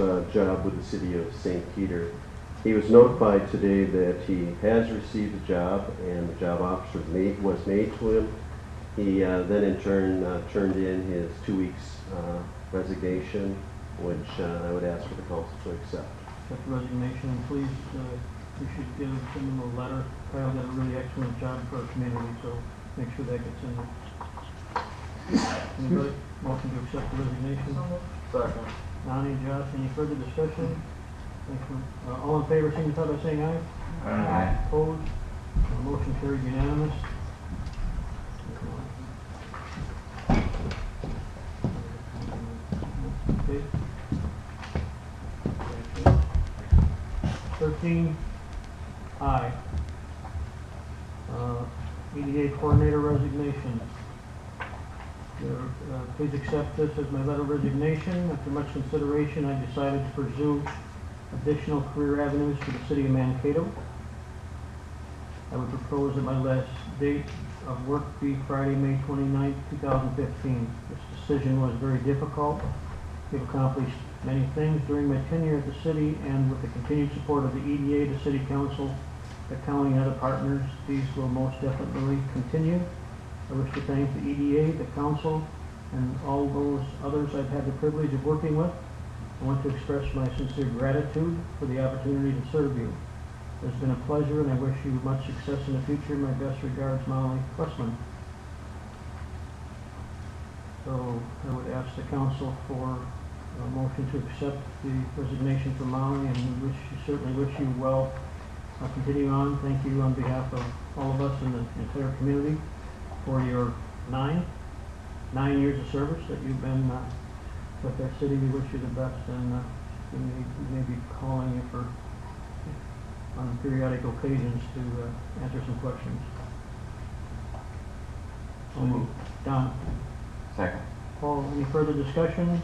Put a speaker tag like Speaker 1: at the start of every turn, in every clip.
Speaker 1: uh, job with the city of St. Peter. He was notified today that he has received the job and the job offer made, was made to him. He uh, then in turn uh, turned in his two weeks uh, resignation, which uh, I would ask for the council to accept.
Speaker 2: accept the resignation, and please, uh, we should give him a letter. Kyle did a really excellent job for our community, so make sure that gets in there. Anybody welcome to accept the resignation?
Speaker 3: Second.
Speaker 2: Donnie, Josh, any further discussion? Thank you. Uh, All in favor, signify by saying aye.
Speaker 3: Aye.
Speaker 2: Opposed? Uh, Motion carried unanimous. Okay. Thirteen, I. Uh, EDA coordinator resignation. Uh, Please accept this as my letter of resignation. After much consideration, I decided to pursue additional career avenues for the city of Mankato. I would propose that my last date of work be Friday, May 29, 2015. This decision was very difficult. We've accomplished many things during my tenure at the city, and with the continued support of the EDA, the city council, the county, and other partners, these will most definitely continue. I wish to thank the EDA, the council, and all those others I've had the privilege of working with. I want to express my sincere gratitude for the opportunity to serve you. It's been a pleasure, and I wish you much success in the future. My best regards, Molly Westman. So I would ask the council for a motion to accept the resignation from Molly, and we wish, certainly wish you well. I'll continue on. Thank you on behalf of all of us in the entire community for your nine, nine years of service that you've been uh, with our city. We wish you the best, and uh, we may, we may be calling you for on periodic occasions to uh, answer some questions.
Speaker 3: So moved.
Speaker 2: Don,
Speaker 3: Second.
Speaker 2: Paul, any further discussion?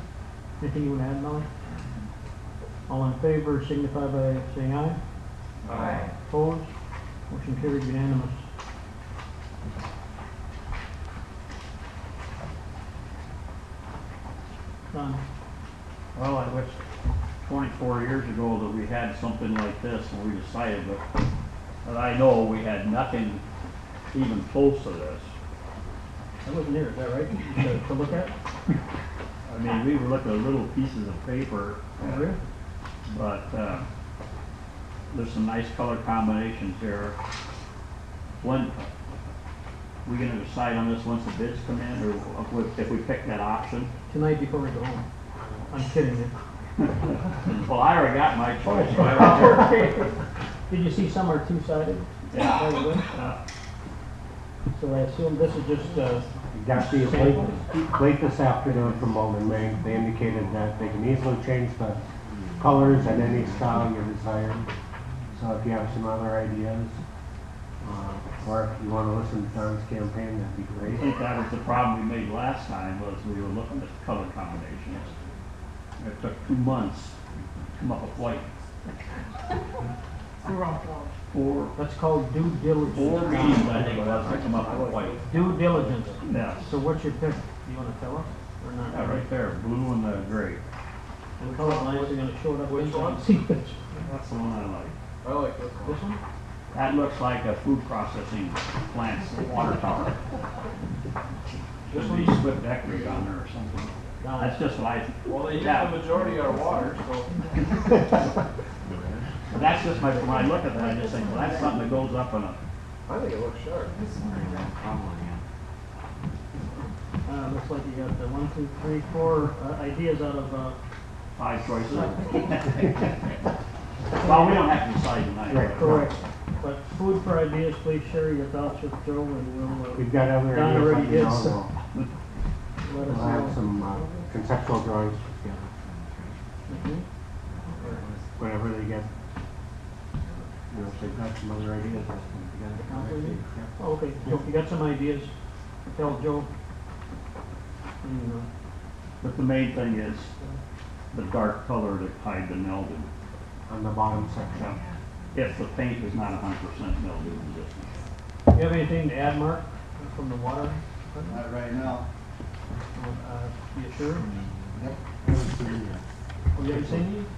Speaker 2: Anything you want to add, Molly? All in favor, signify by saying aye.
Speaker 3: Aye.
Speaker 2: Opposed? Motion carried unanimous. Don,
Speaker 4: Well, I wish twenty-four years ago that we had something like this and we decided, but, but I know we had nothing even close to this.
Speaker 2: I wasn't there, is that right? To- To look at?
Speaker 4: I mean, we were looking at little pieces of paper, but, uh, there's some nice color combinations here. When, we gonna decide on this once the bids come in, or if we- if we pick that option?
Speaker 2: Tonight before we go home. I'm kidding you.
Speaker 4: Well, I already got my choice.
Speaker 2: Did you see some are two-sided? By the way?
Speaker 4: Uh,
Speaker 2: So I assume this is just, uh,
Speaker 5: Got the late, late this afternoon from Bowman Bank, they indicated that they can easily change the colors at any style you desire. So if you have some other ideas, uh, or if you wanna listen to Don's campaign, that'd be
Speaker 4: I
Speaker 5: great.
Speaker 4: think that was the problem we made last time, was we were looking at color combinations. It took two months to come up with like four,
Speaker 2: that's called due diligence.
Speaker 4: four meetings, I think, it was to come up with white.
Speaker 2: Due diligence.
Speaker 4: Yeah,
Speaker 2: So what's your pick? Do you wanna tell us or not?
Speaker 4: that right there, blue and the gray.
Speaker 2: The color lines are gonna show it up.
Speaker 3: Which one?
Speaker 2: See this,
Speaker 4: That's the one I like.
Speaker 3: I like this one.
Speaker 2: this one?
Speaker 4: That looks like a food processing plant's water tower. Should be split decorative on there or something. Uh,
Speaker 2: Don,
Speaker 4: That's just what I,
Speaker 3: Well, they use
Speaker 4: Yeah.
Speaker 3: the majority are water, so.
Speaker 4: that's just my, when I look at that, I just think, well, that's something that goes up on a
Speaker 3: I think it looks sharp.
Speaker 2: uh, looks like you got the one, two, three, four, uh, ideas out of, uh,
Speaker 4: Five choices. Well, we don't have to decide tonight.
Speaker 5: Right.
Speaker 2: correct. But food for ideas, please share your thoughts with Joe and we'll, uh,
Speaker 5: We've got other
Speaker 2: Don
Speaker 5: ideas.
Speaker 2: already
Speaker 5: let me
Speaker 2: did
Speaker 5: know,
Speaker 2: some. uh, let
Speaker 5: We'll we'll have
Speaker 2: us know.
Speaker 5: some uh, conceptual drawings put together,
Speaker 2: Mhm.
Speaker 5: whatever they get. You know, if they've got some other ideas, let's put them together. Yeah.
Speaker 2: Oh, Okay, so if you got some ideas, tell Joe. And, uh,
Speaker 4: But the main thing is the dark color that tied the mildew.
Speaker 5: On the bottom section.
Speaker 4: If the paint is not hundred percent mildew resistant.
Speaker 2: You have anything to add, Mark, from the water?
Speaker 6: Not right now.
Speaker 2: Uh, You sure?
Speaker 6: Yep. Mm-hmm.
Speaker 5: Haven't seen it yet.
Speaker 2: Have you ever seen these?